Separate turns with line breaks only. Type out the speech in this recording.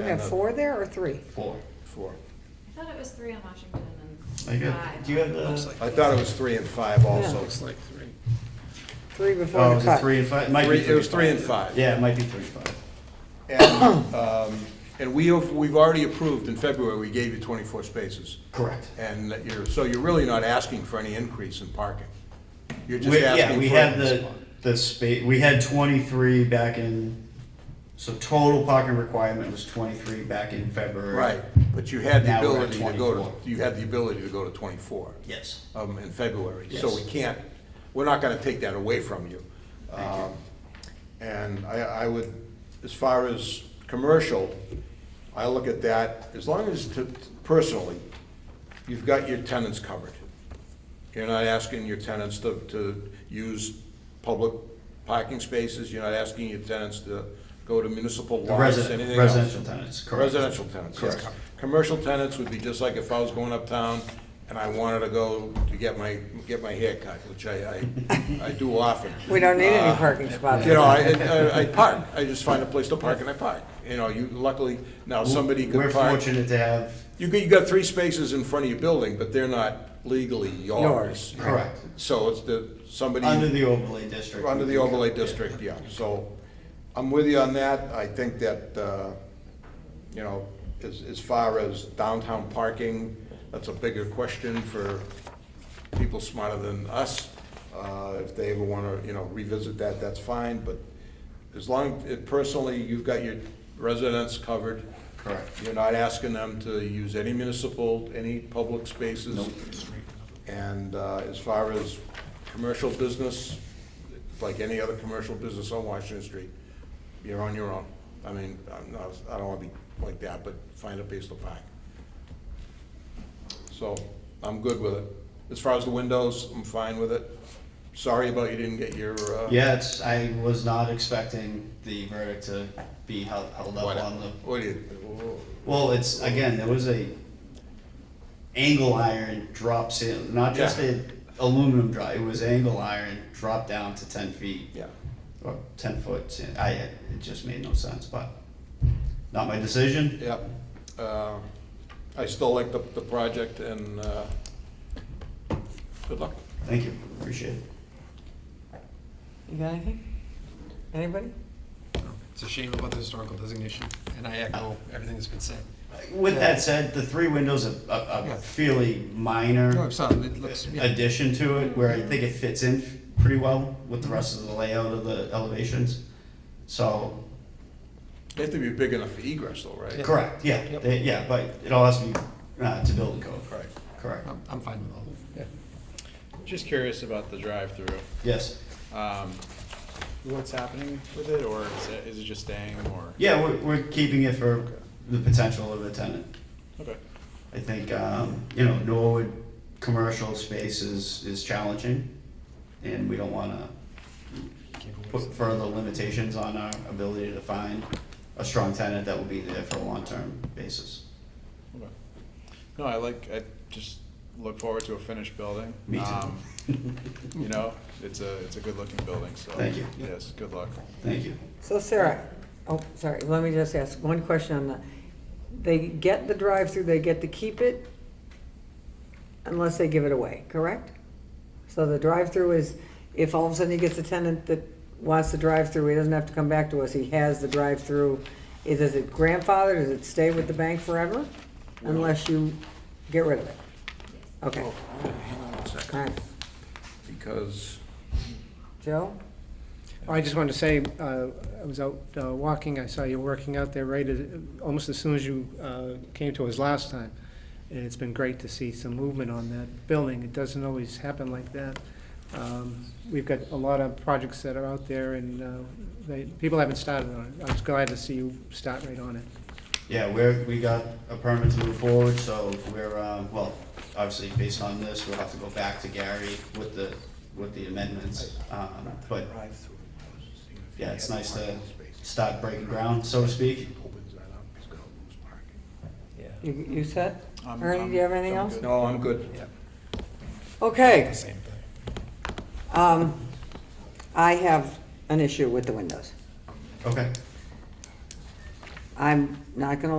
We have four there or three?
Four.
Four.
I thought it was three on Washington
I
and
got,
five.
do you have the?
Looks like- I thought it was three and five also.
Looks
like three.
Three
Oh,
before the
is it
cut.
three and five? It might be
Three- it was three and five.
Yeah, it might be three and five.
And, um, and we have, we've already approved in February, we gave you twenty-four spaces.
Correct.
And that you're, so you're really not asking for any increase in parking. You're just
We, yeah,
asking
we
for.
had the, the space, we had twenty-three back in, so total parking requirement was twenty-three back in February.
Right, but you had the
Now we're at
ability to go
24.
to, you had the ability to go to twenty-four.
Yes.
Um, in February, so we
Yes.
can't, we're not gonna take that away from you. Um, And I, I would, as far as commercial, I look at that, as long as, to- personally, you've got your tenants covered. You're not asking your tenants to, to use public parking spaces, you're not asking your tenants to go to municipal
The
lots, anything
resident,
else.
residential tenants, correct.
Residential tenants, yes.
Correct.
Commercial tenants would be just like if I was going uptown and I wanted to go to get my, get my hair cut, which I, I, I do often.
We don't need any
Uh,
parking spots.
You know, I, I- I park, I just find a place to park and I park, you know, you luckily, now somebody
We're
could park.
fortunate to have,
You got, you got three spaces in front of your building, but they're not legally
Yours.
yours.
correct,
So it's the, somebody.
under the overlay district.
Under
we
the
can
overlay
go- yeah.
district, yeah, so I'm with you on that. I think that, uh, you know, as, as far as downtown parking, that's a bigger question for people smarter than us. Uh, If they ever want to, you know, revisit that, that's fine, but as long, personally, you've got your residents covered.
Correct.
You're not asking them to use any municipal, any public spaces. And uh, as far as commercial business, like any other commercial business on Washington Street, you're on your own. I mean, I'm not, I don't wanna be like that, but find a place to park. So, I'm good with it. As far as the windows, I'm fine with it. Sorry about you didn't get your, uh.
Yeah, it's, I was not expecting the verdict to be held, held up
What,
on the
what do you, oh,
Well, it's, again, there was a angle iron drop seal, not just
Yeah.
a aluminum drop, it was angle iron dropped down to ten feet.
yeah,
Or ten foot, sa- I, it just made no sense, but not my decision.
yeah. Uh, I still like the, the project and, uh, good luck.
Thank you, appreciate it.
You got anything? Anybody?
It's a shame about the historical designation, and I echo everything that's been said.
With that said, the three windows are, are
Yeah.
are fairly minor.
No, I'm sorry, it looks, yeah,
addition to it, where I think it fits in f- pretty well with the rest of the layout of the elevations. So,
They have to be big enough for egress though, right?
correct, yeah,
Yep.
they- yeah, but it all has to be, uh, to build code.
Right.
Correct,
I'm, I'm fine with all of it.
Just curious about the drive-through.
yes.
Um, what's happening with it, or is it, is it just staying, or?
Yeah, we're, we're keeping it for the potential of a tenant.
Okay.
I think, um, you know, Norwood commercial space is, is challenging, and we don't wanna put further limitations on our ability to find a strong tenant that will be there for a long-term basis.
Okay. No, I like, I just look forward to a finished building.
Me too.
Um, You know, it's a, it's a good-looking building, so.
Thank you.
Yes, good luck.
Thank you.
So Sarah, oh, sorry, let me just ask one question on that. They get the drive-through, they get to keep it unless they give it away, correct? So the drive-through is, if all of a sudden he gets a tenant that wants the drive-through, he doesn't have to come back to us, he has the drive-through. Is is it grandfather, does it stay with the bank forever? Unless you get rid of it? Okay, all right.
Because,
Joe?
I just wanted to say, uh, I was out uh, walking, I saw you working out there right, at- almost as soon as you uh, came to us last time. And it's been great to see some movement on that building. It doesn't always happen like that. Um, We've got a lot of projects that are out there and uh, they, people haven't started on it. I was glad to see you start right on it.
Yeah, we're, we got a permit to move forward, so we're, uh, well, obviously, based on this, we'll have to go back to Gary with the, with the amendments. Um, But, yeah, it's nice to start breaking ground, so to speak.
You, you set?
I'm-
Ernie, do you have anything
I'm
else?
good.
no, I'm good.
Okay,
Same thing.
um, I have an issue with the windows.
Okay.
I'm not gonna